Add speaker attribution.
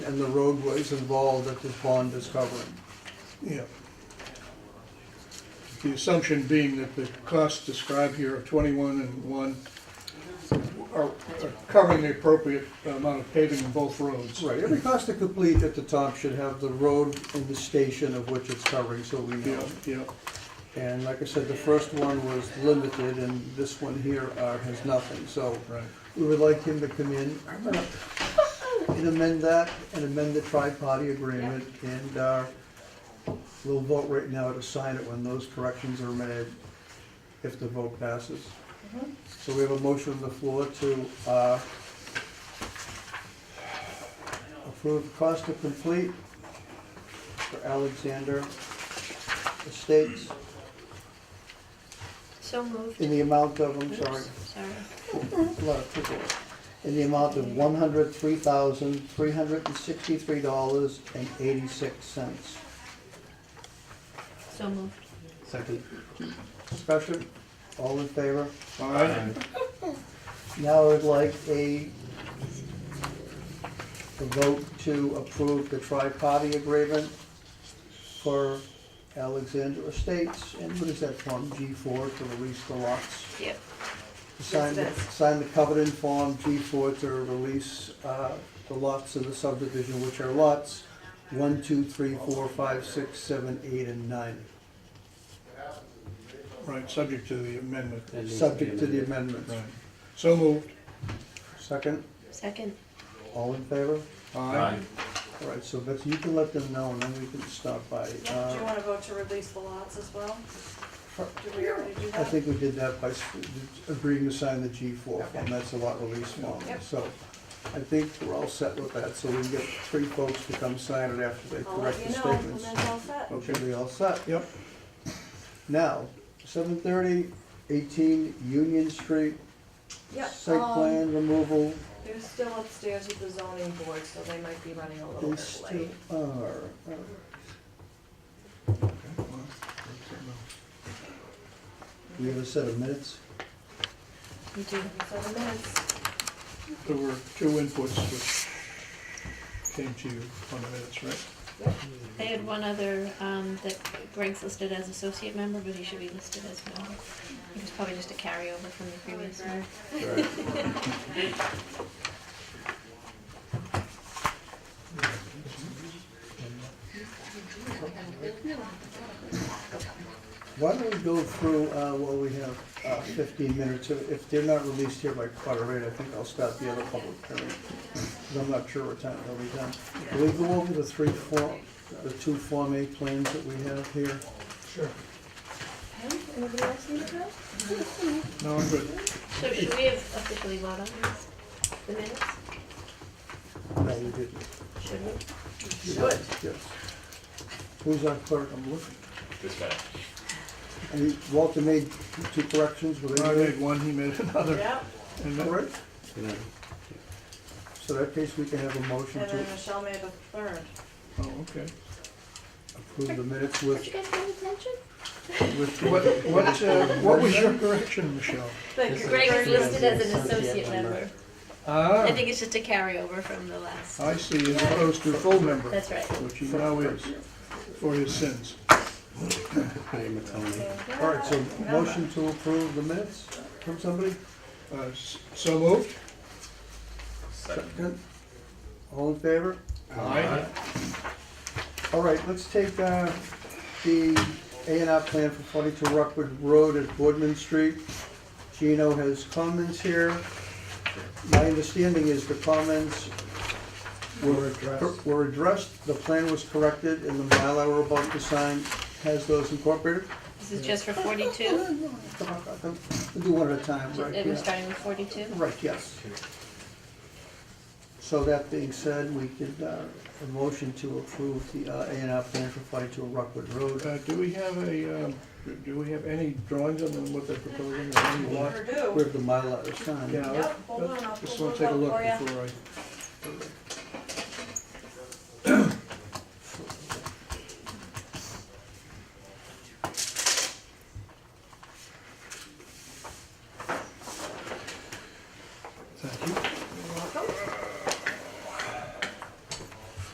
Speaker 1: and the roadways involved that this bond is covering.
Speaker 2: Yeah. The assumption being that the costs described here of twenty-one and one are are covering the appropriate amount of paving in both roads.
Speaker 1: Right, every cost to complete at the top should have the road and the station of which it's covering, so we
Speaker 2: Yeah,
Speaker 1: know.
Speaker 2: yeah,
Speaker 1: And like I said, the first one was limited, and this one here uh, has nothing, so
Speaker 2: right.
Speaker 1: we would like him to come in I'm gonna- and amend that, and amend the tri-party agreement, and uh, we'll vote right now to sign it when those corrections are made, if the vote passes. So we have a motion on the floor to uh, approve cost to complete for Alexander Estates
Speaker 3: So moved.
Speaker 1: in the amount of, I'm sorry,
Speaker 3: Sorry.
Speaker 1: a lot of people, in the amount of one hundred three thousand, three hundred and sixty-three dollars and eighty-six cents.
Speaker 3: So moved.
Speaker 4: Second.
Speaker 1: Discussion, all in favor?
Speaker 2: All right,
Speaker 1: Now I'd like a a vote to approve the tri-party agreement for Alexander Estates, and what is that from, G four, to release the lots?
Speaker 3: Yep.
Speaker 1: Sign, the-
Speaker 3: Yes, it is.
Speaker 1: sign the covenant form G4 to release uh, the lots of the subdivision, which are lots 1, 2, 3, 4, 5, 6, 7, 8, and 9,
Speaker 2: right, subject to the amendment.
Speaker 4: That needs to be
Speaker 1: subject to the
Speaker 4: amended.
Speaker 1: amendments.
Speaker 2: Right. So moved.
Speaker 1: Second,
Speaker 3: Second.
Speaker 1: all in favor?
Speaker 2: All
Speaker 4: Aye.
Speaker 2: right,
Speaker 1: All right, so Betsy, you can let them know, and then we can stop by.
Speaker 5: Yeah, do you
Speaker 1: Uh,
Speaker 5: wanna vote to release the lots as well? Do we already do
Speaker 1: I
Speaker 5: that?
Speaker 1: think we did that by s- agreeing to sign the G4 form,
Speaker 5: Okay.
Speaker 1: that's a lot release form.
Speaker 5: Yep.
Speaker 1: So I think we're all set with that, so we can get three folks to come sign it after they
Speaker 5: I'll let
Speaker 1: correct
Speaker 5: you
Speaker 1: the
Speaker 5: know when
Speaker 1: statements. Oh,
Speaker 5: that's all set.
Speaker 1: Okay, we all set?
Speaker 2: yep,
Speaker 1: Now, 7:30, 18 Union Street,
Speaker 5: Yep,
Speaker 1: site
Speaker 5: um,
Speaker 1: plan removal,
Speaker 5: they're still upstairs with the zoning board, so they might be running a little
Speaker 1: they
Speaker 5: bit
Speaker 1: still
Speaker 5: oh, late.
Speaker 1: are. uh, We have a set of minutes,
Speaker 3: You do.
Speaker 5: Seven minutes,
Speaker 2: there were two inputs which came to you on the minutes, right?
Speaker 3: They had one other, um, that Greg's listed as associate member, but he should be listed as well. It was probably just a carryover from the previous one.
Speaker 1: why don't we go through, uh, what we have, uh, 15 minutes, If- if they're not released here by quarter eight, I think I'll stop the other public hearing, 'cause I'm not sure what time they'll be done. Will we go over the three form, the two Form A plans that we have here?
Speaker 5: anybody else need to go?
Speaker 2: No, I'm good.
Speaker 3: So should we have officially voted on this? The minutes?
Speaker 1: No, we didn't.
Speaker 3: Should we?
Speaker 1: Should. Yes. Who's our clerk? I'm looking.
Speaker 6: This guy.
Speaker 1: And Walter made two corrections, were
Speaker 2: I
Speaker 1: they
Speaker 2: made one, he made another.
Speaker 5: Yep,
Speaker 2: And that-
Speaker 1: correct?
Speaker 4: Yeah.
Speaker 1: So that case, we can have a motion
Speaker 5: and
Speaker 1: to
Speaker 5: then Michelle made the third.
Speaker 2: Oh, okay.
Speaker 1: approve the minutes
Speaker 3: Did you
Speaker 1: with,
Speaker 3: guys pay attention?
Speaker 1: with.
Speaker 2: What, what, uh, what was your correction, Michelle?
Speaker 5: But
Speaker 4: This is-
Speaker 3: Greg is
Speaker 4: Greg is
Speaker 3: listed as an
Speaker 4: associate
Speaker 3: associate
Speaker 4: member. Oh.
Speaker 3: member.
Speaker 2: Ah,
Speaker 3: I think it's just a carryover from the last.
Speaker 2: I see, as opposed to full member,
Speaker 3: That's right.
Speaker 2: which he now is, for his sins.
Speaker 4: Hi, Matoni.
Speaker 1: All right, so motion to approve the minutes from somebody?
Speaker 2: Uh, s- So moved?
Speaker 1: Second. All in favor?
Speaker 2: Aye.
Speaker 1: All right, let's take, uh, the A and R plan for forty-two Rockwood Road at Boardman Street. Gino has comments here. My understanding is the comments were addressed, were addressed, the plan was corrected, and the Mylar we're about to sign has those incorporated.
Speaker 3: This is just for forty-two?
Speaker 1: Come on, come on, We'll do one at a time, right?
Speaker 3: It was
Speaker 1: yeah.
Speaker 3: starting with forty-two?
Speaker 1: Right, yes. So that being said, we could, uh, a motion to approve the uh, A and R plan for forty-two Rockwood Road.
Speaker 2: Uh, Do we have a, um, do we have any drawings on them, what they're proposing, or any lot?
Speaker 5: Sure do.
Speaker 1: Where the Mylar is signed.
Speaker 2: Yeah,
Speaker 5: Yep, hold on, I'll
Speaker 2: just
Speaker 5: pull
Speaker 2: want to take a
Speaker 5: those
Speaker 2: look
Speaker 5: up for ya.
Speaker 2: before I,